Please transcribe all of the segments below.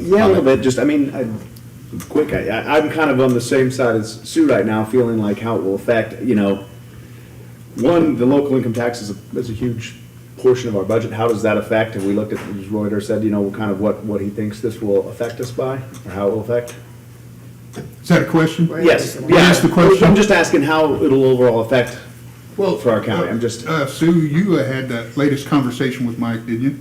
Yeah, a little bit, just, I mean, I, quick, I, I- I'm kind of on the same side as Sue right now, feeling like how it will affect, you know, one, the local income tax is a, is a huge portion of our budget, how does that affect? And we looked at, as Reuter said, you know, kind of what, what he thinks this will affect us by, or how it will affect? Is that a question? Yes, Can I yeah, ask the question? I'm just asking how it'll overall affect Well, for our county, I'm just, Uh, Sue, you had that latest conversation with Mike, didn't you?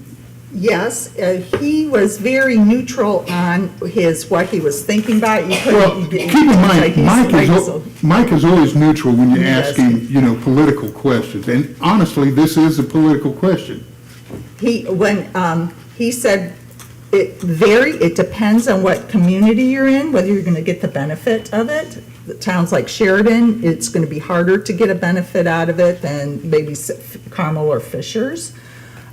Yes, uh, he was very neutral on his, what he was thinking about. You Well, couldn't- keep in mind, he's Mike like, is, so- al- Mike is always neutral when you He ask is. him, you know, political questions. And honestly, this is a political question. He, when, um, he said, it very, it depends on what community you're in, whether you're gonna get the benefit of it. The Towns like Sheridan, it's gonna be harder to get a benefit out of it than maybe S- Carmel or Fishers.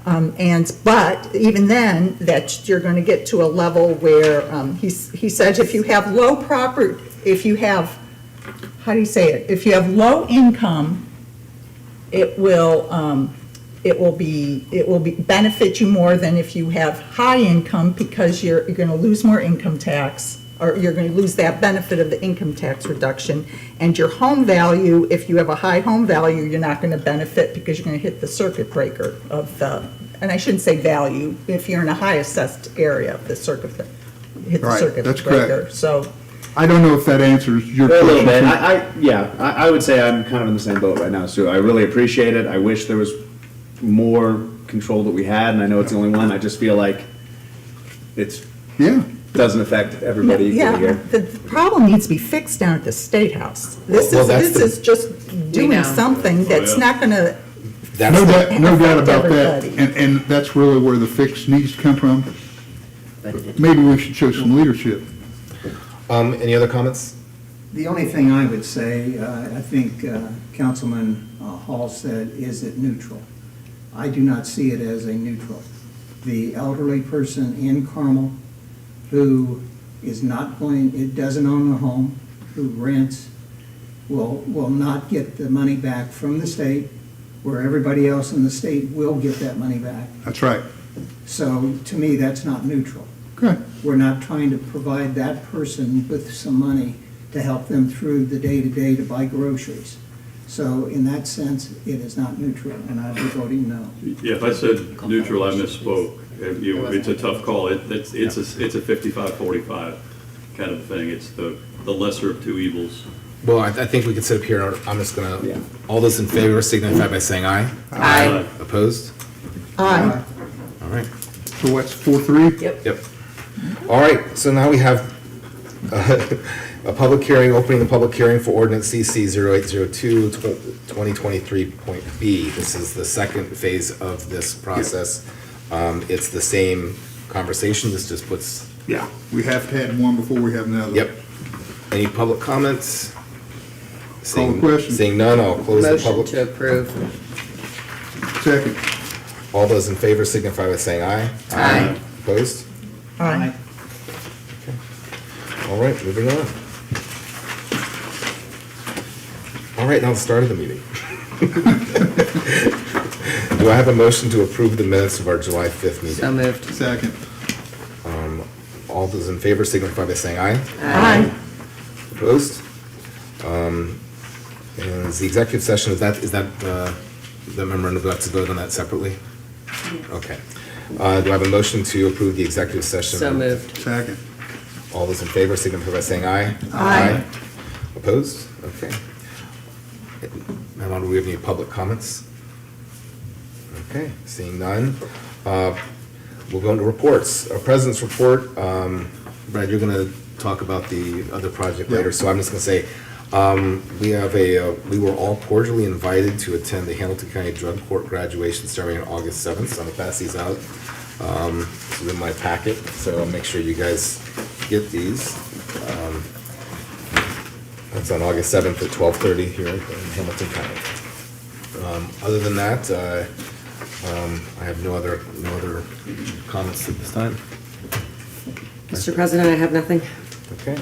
Um, and, but even then, that you're gonna get to a level where, um, he, s- he said if you have low proper, if you have, how do you say it? If you have low income, it will, um, it will be, it will be, benefit you more than if you have high income because you're, you're gonna lose more income tax, or you're gonna lose that benefit of the income tax reduction. And your home value, if you have a high home value, you're not gonna benefit because you're gonna hit the circuit breaker of the, and I shouldn't say value, if you're in a high assessed area of the circuit, hit the Right, circuit breaker. that's correct. So, I don't know if that answers your A question. little bit. Sue. I, I yeah, I, I would say I'm kind of in the same boat right now, Sue. I really appreciate it. I wish there was more control that we had, and I know it's the only one. I just feel like it's Yeah. doesn't affect everybody yeah, equally here. the the problem needs to be fixed down at the State House. This Well, is, that's this the- is just doing know. something that's not gonna That's No the- doubt, no doubt about that. Everybody. And, and that's really where the fix needs to come from. Maybe we should show some leadership. Um, any other comments? The only thing I would say, uh, I think uh, Councilman uh, Hall said, is it neutral? I do not see it as a neutral. The elderly person in Carmel who is not going, it doesn't own a home, who rents, will, will not get the money back from the state, where everybody else in the state will get that money back. That's right. So to me, that's not neutral Okay. we're not trying to provide that person with some money to help them through the day-to-day to buy groceries. So in that sense, it is not neutral, and I'd be voting no. Yeah, if I said neutral, I misspoke. It- you- It's a tough call. It- It's, it's a, it's a fifty-five, forty-five kind of thing. It's the, the lesser of two evils. Well, I, I think we can sit up here, I'm just Yeah. gonna, all those in favor signify by saying aye. Aye. Opposed? I All right, So what's four, three? yep. All right, so now we have uh, a public hearing, opening the public hearing for ordinance CC 0802 point B. This is the second phase of this process. Um, it's the same conversation, this just puts Yeah. We have had one before we have another. Yep. Any public comments? Call the Seeing- question. Seeing none, I'll close the Motion to public. approve. Second. All those in favor signify by saying aye. Aye. Opposed? Aye. All right, moving on. All right, now the start of the meeting. Do I have a motion to approve the minutes of our July 5th So meeting? moved. Second. All those in favor signify by saying aye. Aye. Opposed? Um, Is the executive session, is that, is that, uh, the memorandum, do I have to vote on that separately? Okay. Uh, Do I have a motion to approve the executive session? So moved. Second. All those in favor signify by saying aye. Aye. Opposed? Okay. Madam, do we have any public comments? Okay, seeing none. Uh, We'll go into reports. Our president's report, um, Brad, you're going to talk about the other project later, so I'm just going to say, um, we have a, uh, we were all cordially invited to attend the Hamilton County Drug Court graduation ceremony on August 7th, so I'm going to pass these out. Um, This is in my packet, so I'll make sure you guys get these. Um, That's on August 7th at 12:30 here in Hamilton County. Um, Other than that, uh, um, I have no other, no other comments at this time. Mr. President, I have nothing. Okay.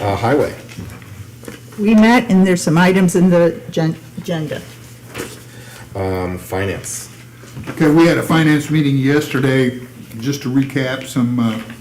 Uh, Highway, We met, and there's some items in the gen- agenda. um, Finance. Okay, we had a finance meeting yesterday, just to recap some uh,